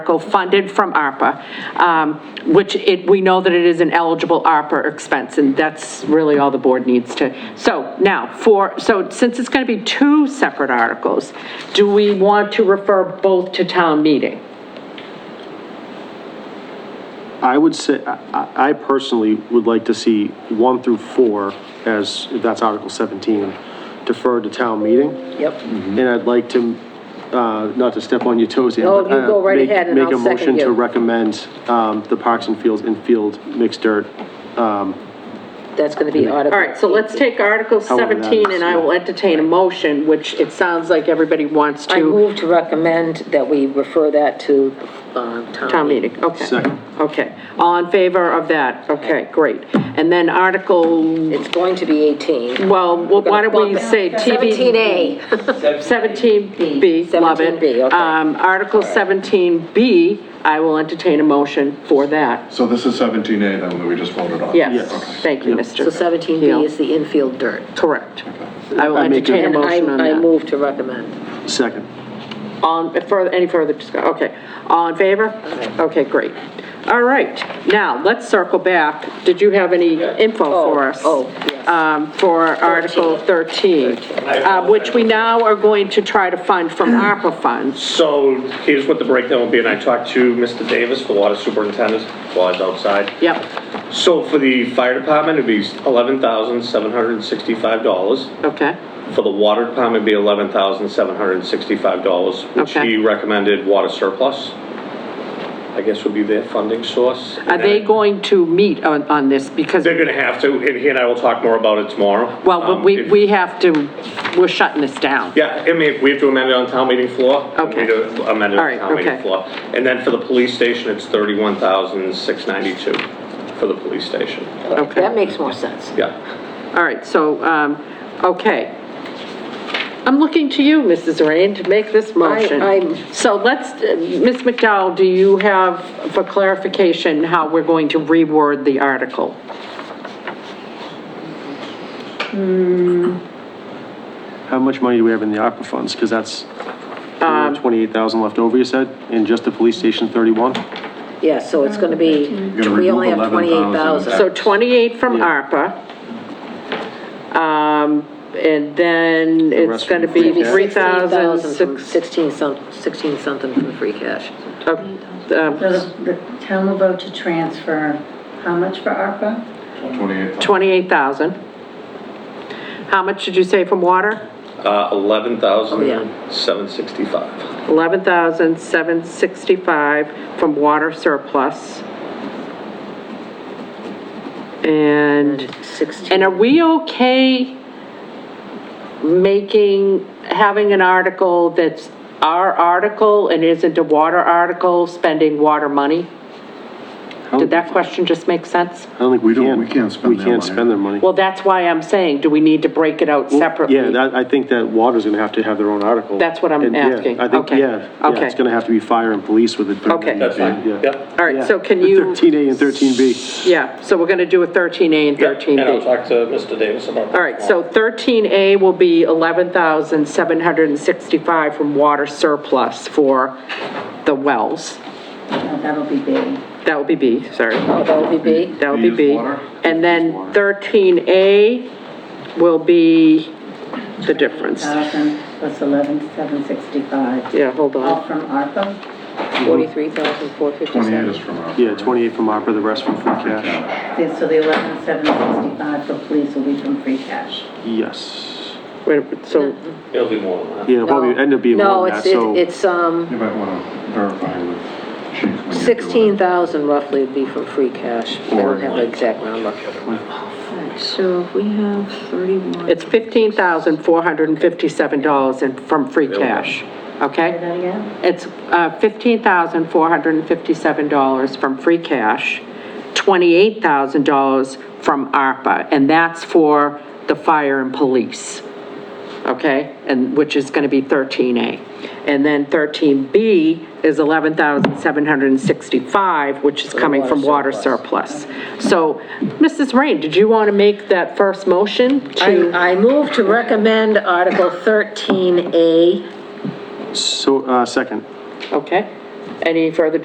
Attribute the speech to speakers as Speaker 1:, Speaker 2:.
Speaker 1: article funded from ARPA, um, which it, we know that it is an eligible ARPA expense, and that's really all the board needs to. So now, for, so since it's going to be two separate articles, do we want to refer both to town meeting?
Speaker 2: I would say, I I personally would like to see one through four, as that's Article 17, deferred to town meeting.
Speaker 3: Yep.
Speaker 2: And I'd like to, uh, not to step on your toes here.
Speaker 3: No,
Speaker 2: but,
Speaker 3: you
Speaker 2: uh,
Speaker 3: go right
Speaker 2: make-
Speaker 3: ahead and I'll second
Speaker 2: Make a motion to
Speaker 3: you.
Speaker 2: recommend um, the Parks and Fields infield mixed dirt.
Speaker 3: That's going to be Article.
Speaker 1: All right, so let's take Article
Speaker 2: However Oh, that
Speaker 1: 17,
Speaker 2: is,
Speaker 1: and I
Speaker 2: yeah.
Speaker 1: will entertain a motion, which it sounds like everybody wants
Speaker 3: I
Speaker 1: to.
Speaker 3: move to recommend that we refer that to, um,
Speaker 1: Town
Speaker 3: town meeting.
Speaker 1: meeting, okay.
Speaker 2: Second.
Speaker 1: Okay, all in favor of that? Okay, great. And then Article,
Speaker 3: It's going to be 18.
Speaker 1: well, why don't we
Speaker 3: Bump it.
Speaker 1: say TV?
Speaker 3: 17A.
Speaker 1: 17B, love it.
Speaker 3: 17B, okay.
Speaker 1: Um, Article 17B, I will entertain a motion for that.
Speaker 4: So this is 17A then that we just voted on?
Speaker 1: Yes,
Speaker 2: Yes.
Speaker 1: thank you, Mr.
Speaker 3: So 17B is the infield dirt.
Speaker 1: Correct. I will
Speaker 2: I make a-
Speaker 1: entertain a
Speaker 3: And I,
Speaker 1: motion on
Speaker 3: I
Speaker 1: that.
Speaker 3: move to recommend.
Speaker 2: Second.
Speaker 1: On, further, any further discussion? Okay. All in favor? Okay, great. All right, now, let's circle back. Did you have any info for us?
Speaker 3: oh, yes.
Speaker 1: um, For Article 13, uh, which we now are going to try to fund from ARPA funds.
Speaker 5: So here's what the breakdown will be, and I talked to Mr. Davis, the water superintendent, while I was outside.
Speaker 1: Yep,
Speaker 5: So for the fire department, it'd be $11,765.
Speaker 1: okay,
Speaker 5: For the water department, it'd be $11,765, which
Speaker 1: Okay.
Speaker 5: he recommended water surplus, I guess would be their funding source.
Speaker 1: Are they going to meet on, on this? Because,
Speaker 5: They're gonna have to, and he and I will talk more about it tomorrow.
Speaker 1: well, but
Speaker 5: Um,
Speaker 1: we,
Speaker 5: if-
Speaker 1: we have to, we're shutting this down.
Speaker 5: Yeah, I mean, we have to amend it on town meeting floor.
Speaker 1: Okay.
Speaker 5: We do amend it
Speaker 1: All right,
Speaker 5: on town
Speaker 1: okay.
Speaker 5: meeting floor. And then for the police station, it's thirty-one thousand six ninety-two for the police station.
Speaker 3: That
Speaker 1: Okay,
Speaker 3: makes more sense.
Speaker 5: Yeah. Uh,
Speaker 1: all right, so, um, okay. I'm looking to you, Mrs. Rain, to make this motion.
Speaker 3: I'm-
Speaker 1: So let's, uh, Ms. McDowell, do you have, for clarification, how we're going to reword the article?
Speaker 2: How much money do we have in the ARPA funds? Because that's
Speaker 3: Um,
Speaker 2: 28,000 left over, you said, and just the police station 31?
Speaker 3: Yeah, so it's going to be,
Speaker 4: You're gonna
Speaker 3: we only
Speaker 4: remove
Speaker 3: have
Speaker 4: 28,000.
Speaker 3: 28,000.
Speaker 1: So 28 from ARPA. Um, and then it's
Speaker 2: rest
Speaker 1: going to
Speaker 2: from free
Speaker 1: be
Speaker 2: cash.
Speaker 3: 16,000 from
Speaker 1: 3,006.
Speaker 3: 16 some, 16 something from free cash.
Speaker 1: uh,
Speaker 6: So the, the town will vote to transfer how much for ARPA?
Speaker 4: 28.
Speaker 1: 28,000. How much did you say from water?
Speaker 5: Uh, eleven
Speaker 3: Yeah.
Speaker 5: thousand seven sixty-five.
Speaker 1: 11,765 from water surplus. And,
Speaker 3: 16.
Speaker 1: and are we okay making, having an article that's our article and isn't a water article, spending water money? Did that question just make sense?
Speaker 2: I don't think we
Speaker 4: We don't-
Speaker 2: can.
Speaker 4: we can't spend
Speaker 2: We
Speaker 4: their
Speaker 2: can't
Speaker 4: money.
Speaker 2: spend their money.
Speaker 1: Well, that's why I'm saying, do we need to break it out separately?
Speaker 2: Yeah, that, I think that water's gonna have to have their own article.
Speaker 1: That's what I'm
Speaker 2: And, yeah,
Speaker 1: asking.
Speaker 2: I think,
Speaker 1: Okay.
Speaker 2: yeah, yeah, it's
Speaker 1: Okay.
Speaker 2: gonna have to be fire and police with it.
Speaker 1: Okay.
Speaker 5: That's fine.
Speaker 2: Yeah.
Speaker 5: Yep.
Speaker 1: All right, so can
Speaker 2: Yeah.
Speaker 1: you?
Speaker 2: 13A and 13B.
Speaker 1: Yeah, so we're going to do a 13A and
Speaker 5: Yeah, And I'll
Speaker 1: 13B.
Speaker 5: talk to Mr. Davis about that.
Speaker 1: All right, so 13A will be 11,765 from water surplus for the wells.
Speaker 6: No, that'll be B.
Speaker 1: That would be B, sorry.
Speaker 3: Oh, that would be B?
Speaker 1: That would be
Speaker 4: B is
Speaker 1: B.
Speaker 4: water.
Speaker 1: And then
Speaker 4: B is water.
Speaker 1: 13A will be the difference.
Speaker 6: Thousand plus eleven, seven sixty-five.
Speaker 1: Yeah, hold
Speaker 6: All
Speaker 1: on.
Speaker 6: from ARPA?
Speaker 2: Mm-hmm.
Speaker 4: 28 is
Speaker 3: 43,457.
Speaker 4: from our.
Speaker 2: Yeah, 28 from opera, the rest from free cash.
Speaker 6: Yeah, So the eleven, seven sixty-five for police will be from free cash.
Speaker 2: Yes.
Speaker 1: Wait, a minute, so,
Speaker 5: It'll be more than that.
Speaker 2: Yeah, it'll probably end up being
Speaker 3: No,
Speaker 2: more than
Speaker 3: it's,
Speaker 2: that, so.
Speaker 3: it's, it's, um,
Speaker 4: You might want to verify with Chief when you're doing it.
Speaker 3: 16,000 roughly would be from free cash. I don't have the exact number.
Speaker 7: So if we have 31.
Speaker 1: it's $15,457 in- from free cash, okay?
Speaker 6: Say that again?
Speaker 1: It's uh, $15,457 from free cash, $28,000 from ARPA, and that's for the fire and police, okay? And, which is going to be 13A. And then 13B is 11,765, which is coming from water surplus. So, Mrs. Rain, did you want to make that first motion to?
Speaker 3: I, I move to recommend Article 13A.
Speaker 2: So, uh, second.
Speaker 1: Okay, Any further